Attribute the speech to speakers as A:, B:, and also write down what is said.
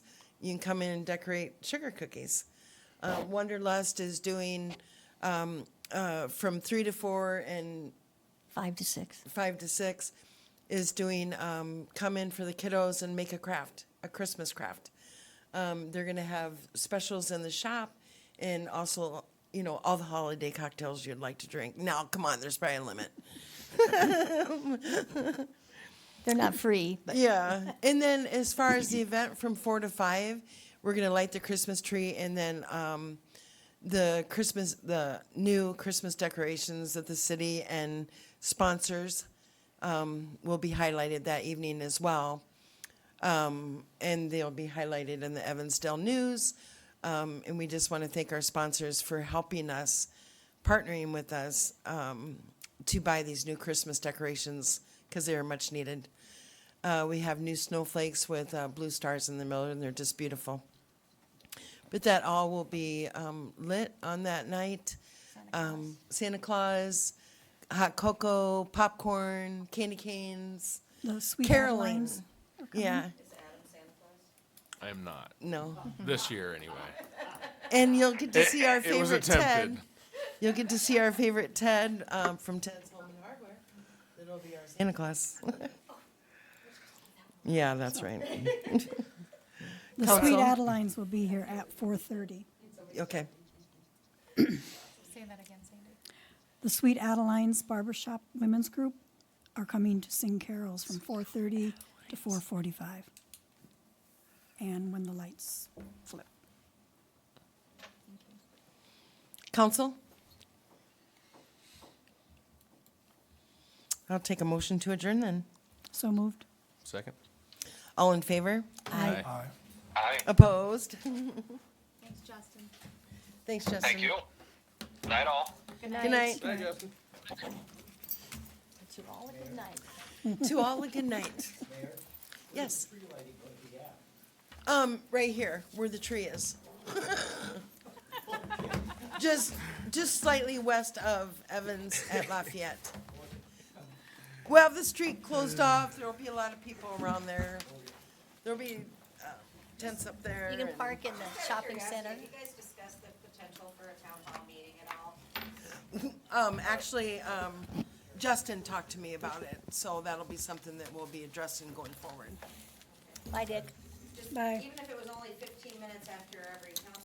A: you can come in and decorate sugar cookies. Uh, Wonderlust is doing um, uh, from three to four and
B: five to six.
A: five to six is doing um, come in for the kiddos and make a craft, a Christmas craft. Um, they're going to have specials in the shop and also, you know, all the holiday cocktails you'd like to drink. Now, come on, there's probably a limit.
B: They're not free, but
A: Yeah. And then as far as the event from four to five, we're going to light the Christmas tree and then um, the Christmas, the new Christmas decorations that the city and sponsors um, will be highlighted that evening as well. Um, and they'll be highlighted in the Evansdale News. Um, and we just want to thank our sponsors for helping us, partnering with us um, to buy these new Christmas decorations because they are much needed. Uh, we have new snowflakes with uh, blue stars in the middle, and they're just beautiful. But that all will be um, lit on that night. Um, Santa Claus, hot cocoa, popcorn, candy canes,
B: those sweet
A: caroling.
B: Adelines.
A: Yeah,
C: I am not.
A: no.
C: This year, anyway.
A: And you'll get to see our
C: It- it was
A: favorite Ted.
C: attempted.
A: You'll get to see our favorite Ted um, from Ted's Home and Hardware. That'll be our Santa Claus. Yeah, that's right.
D: The
A: Council.
D: Sweet Adelines will be here at 4:30.
A: Okay.
E: Say that again, Sandy.
D: The Sweet Adelines Barbershop Women's Group are coming to sing carols from 4:30 to 4:45. And when the lights flip.
A: Council? I'll take a motion to adjourn then.
D: So moved.
C: Second?
A: All in favor?
C: Aye.
A: Opposed?
E: Thanks, Justin.
A: Thanks, Justin.
F: Thank you. Night all.
A: Good night.
B: To all a good night.
A: To all a good night. Yes. Um, right here, where the tree is. Just, just slightly west of Evans at Lafayette. We'll have the street closed off, there'll be a lot of people around there. There'll be uh, tents up there.
B: You can
A: and-
B: park in the shopping center.
G: Have you guys discussed the potential for a town hall meeting at all?
A: Um, actually, um, Justin talked to me about it, so that'll be something that we'll be addressing going forward.
B: Bye, Dick.
G: Just
D: Bye.
G: Even if it was only fifteen minutes after every council